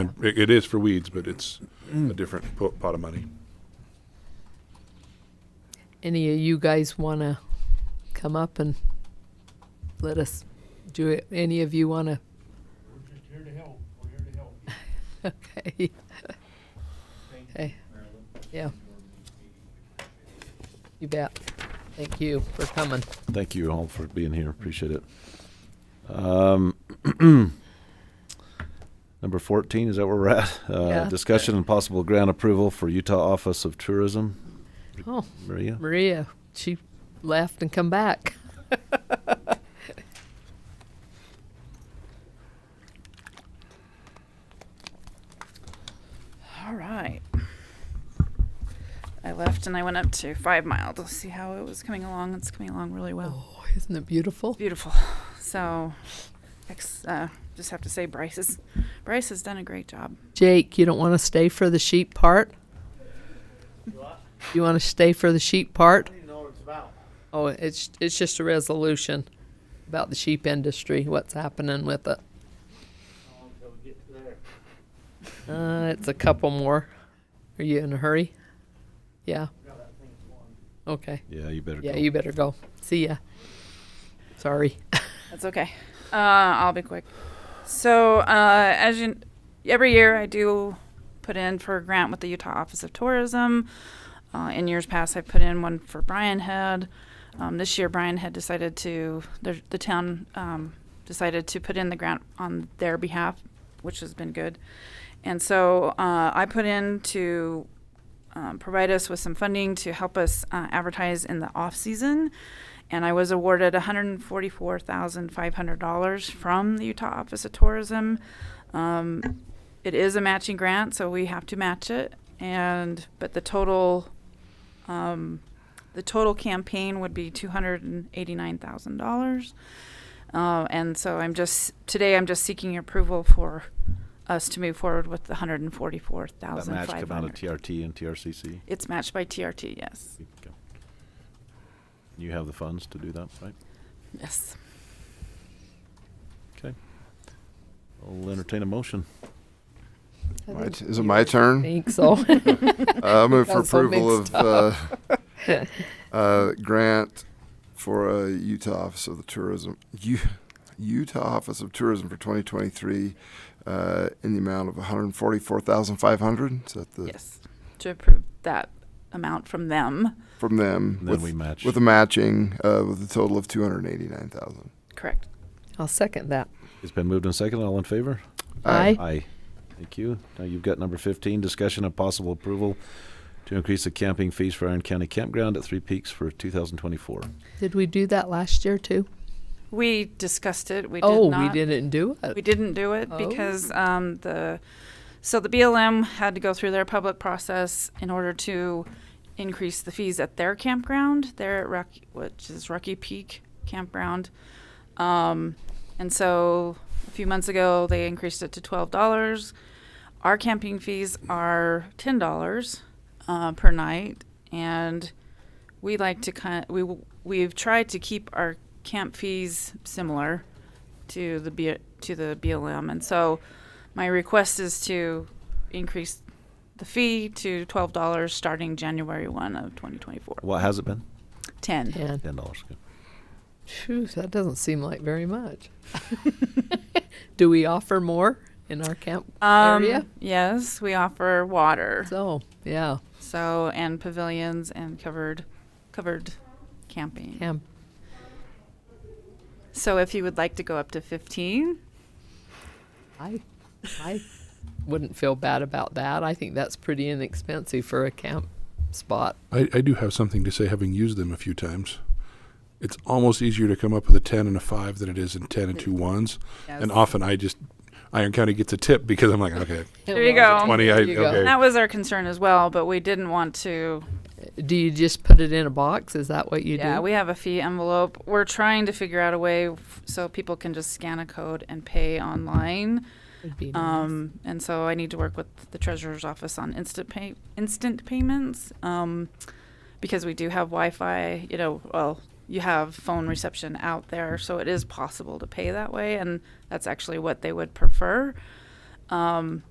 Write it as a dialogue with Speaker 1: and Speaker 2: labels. Speaker 1: It it is for weeds, but it's a different po- pot of money.
Speaker 2: Any of you guys want to come up and let us do it? Any of you want to?
Speaker 3: We're just here to help, we're here to help.
Speaker 2: Okay. Okay. Yeah. You bet. Thank you for coming.
Speaker 4: Thank you all for being here. Appreciate it. Um, number 14, is that where we're at? Uh,
Speaker 2: Yeah.
Speaker 4: Discussion and possible grant approval for Utah Office of Tourism.
Speaker 2: Oh,
Speaker 4: Maria?
Speaker 2: Maria, she left and come back.
Speaker 5: All right. I left and I went up to Five Mile to see how it was coming along. It's coming along really well.
Speaker 2: Oh, isn't it beautiful?
Speaker 5: Beautiful. So, ex- uh, just have to say Bryce is, Bryce has done a great job.
Speaker 2: Jake, you don't want to stay for the sheep part? You want to stay for the sheep part? Oh, it's it's just a resolution about the sheep industry, what's happening with it. Uh, it's a couple more. Are you in a hurry? Yeah. Okay.
Speaker 4: Yeah, you better
Speaker 2: Yeah,
Speaker 4: go.
Speaker 2: you better go. See ya. Sorry.
Speaker 5: That's okay. Uh, I'll be quick. So, uh, as you, every year I do put in for a grant with the Utah Office of Tourism. Uh, in years past, I put in one for Brian Head. Um, this year, Brian Head decided to, the, the town um, decided to put in the grant on their behalf, which has been good. And so uh, I put in to um, provide us with some funding to help us uh, advertise in the off season. And I was awarded $144,500 from the Utah Office of Tourism. Um, it is a matching grant, so we have to match it. And but the total, um, the total campaign would be $289,000. Uh, and so I'm just today I'm just seeking approval for us to move forward with the 144,500.
Speaker 4: That match come out of TRT and TRCC.
Speaker 5: It's matched by TRT, yes.
Speaker 4: Okay. You have the funds to do that, right?
Speaker 5: Yes.
Speaker 4: Okay. I'll entertain a motion.
Speaker 6: My t- Is it my turn?
Speaker 2: think so.
Speaker 6: Uh, I move for
Speaker 2: Got so
Speaker 6: approval
Speaker 2: mixed
Speaker 6: of uh, uh, grant for uh, Utah Office of the Tourism, U- Utah Office of Tourism for 2023 uh, in the amount of 144,500. Is that the
Speaker 5: Yes. To approve that amount from them.
Speaker 6: from them
Speaker 4: And
Speaker 6: with,
Speaker 4: then we match.
Speaker 6: with a matching uh, with a total of 289,000.
Speaker 5: Correct.
Speaker 2: I'll second that.
Speaker 4: It's been moved and seconded. All in favor?
Speaker 2: Aye.
Speaker 4: Aye. Thank you. Now you've got number fifteen, discussion of possible approval to increase the camping fees for Iron County Campground at Three Peaks for two thousand twenty-four.
Speaker 2: Did we do that last year too?
Speaker 5: We discussed it. We
Speaker 2: oh,
Speaker 5: did not.
Speaker 2: we didn't do it.
Speaker 5: We didn't do it
Speaker 2: Oh.
Speaker 5: because um, the so the BLM had to go through their public process in order to increase the fees at their campground there at Rocky, which is Rocky Peak Campground. Um, and so a few months ago, they increased it to twelve dollars. Our camping fees are ten dollars uh, per night, and we like to kind we we've tried to keep our camp fees similar to the B, to the BLM, and so my request is to increase the fee to twelve dollars starting January one of twenty twenty four.
Speaker 4: What has it been?
Speaker 5: Ten.
Speaker 2: Yeah.
Speaker 4: Ten dollars. Good.
Speaker 2: Phew, that doesn't seem like very much. Do we offer more in our camp area?
Speaker 5: Um, Yes, we offer water,
Speaker 2: So, yeah,
Speaker 5: so and pavilions and covered covered camping.
Speaker 2: camp.
Speaker 5: So if you would like to go up to fifteen,
Speaker 2: I, I wouldn't feel bad about that. I think that's pretty inexpensive for a camp spot.
Speaker 1: I, I do have something to say, having used them a few times. It's almost easier to come up with a 10 and a 5 than it is in 10 and two ones. And
Speaker 5: Yes.
Speaker 1: often I just, Iron County gets a tip because I'm like, okay,
Speaker 5: There you go.
Speaker 1: 20, I,
Speaker 2: There you go.
Speaker 1: okay.
Speaker 5: that was our concern as well. But we didn't want to
Speaker 2: Do you just put it in a box? Is that what you
Speaker 5: yeah,
Speaker 2: do?
Speaker 5: we have a fee envelope. We're trying to figure out a way f- so people can just scan a code and pay online.
Speaker 2: Would be nice.
Speaker 5: Um, and so I need to work with the treasurer's office on instant pay instant payments um, because we do have Wi-Fi. You know, well, you have phone reception out there, so it is possible to pay that way, and that's actually what they would prefer. Um,